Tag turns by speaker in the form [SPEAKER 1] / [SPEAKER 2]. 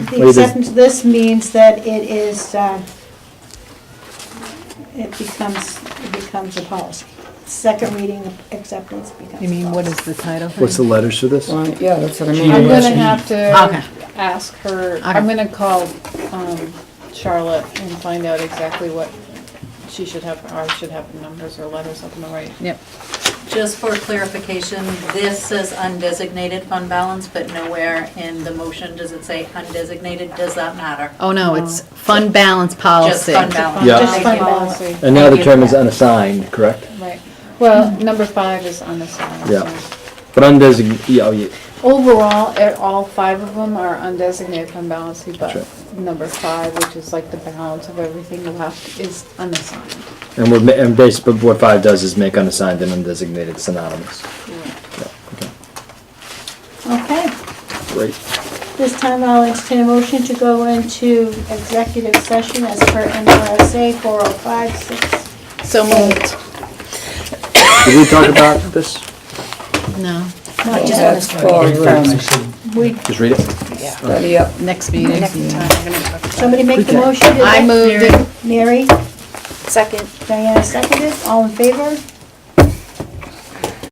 [SPEAKER 1] The acceptance of this means that it is, uh, it becomes, it becomes a policy. Second reading acceptance becomes a policy.
[SPEAKER 2] You mean, what is the title?
[SPEAKER 3] What's the letters for this?
[SPEAKER 4] Well, yeah, that's what I
[SPEAKER 5] I'm
[SPEAKER 4] mean.
[SPEAKER 5] gonna have
[SPEAKER 2] Okay.
[SPEAKER 5] to ask her, I'm gonna call um, Charlotte and find out exactly what she should have, or I should have numbers or letters up in the right.
[SPEAKER 2] Yep.
[SPEAKER 6] Just for clarification, this says undesignated fund balance, but nowhere in the motion does it say undesignated. Does that matter?
[SPEAKER 2] Oh, no, it's fund balance policy.
[SPEAKER 6] Just fund balance.
[SPEAKER 3] Yeah.
[SPEAKER 5] Um,
[SPEAKER 6] Thank
[SPEAKER 5] Just fund
[SPEAKER 6] you.
[SPEAKER 5] policy,
[SPEAKER 3] And now the term is unassigned, correct?
[SPEAKER 5] right. Well, number five is undesignated.
[SPEAKER 3] Yeah. But undesignated, yeah, oh, yeah,
[SPEAKER 5] Overall, eh, all five of them are undesignated fund balance, but
[SPEAKER 3] That's
[SPEAKER 5] number five, which is like the balance of everything left, is unassigned.
[SPEAKER 3] and we're, ma- and basically what five does is make unassigned and undesignated synonymous.
[SPEAKER 1] Okay.
[SPEAKER 3] Great.
[SPEAKER 1] This time I'll entertain a motion to go into executive session as per NRSA 4056.
[SPEAKER 2] So moved.
[SPEAKER 3] Did we talk about this?
[SPEAKER 2] No,
[SPEAKER 1] Not
[SPEAKER 4] That's
[SPEAKER 1] just,
[SPEAKER 4] for, um,
[SPEAKER 1] we,
[SPEAKER 3] Just read it.
[SPEAKER 4] study up.
[SPEAKER 2] next meeting.
[SPEAKER 1] somebody make the motion. did
[SPEAKER 2] I
[SPEAKER 1] they?
[SPEAKER 2] moved it.
[SPEAKER 1] Mary,
[SPEAKER 7] Second.
[SPEAKER 1] Diana seconded, all in favor?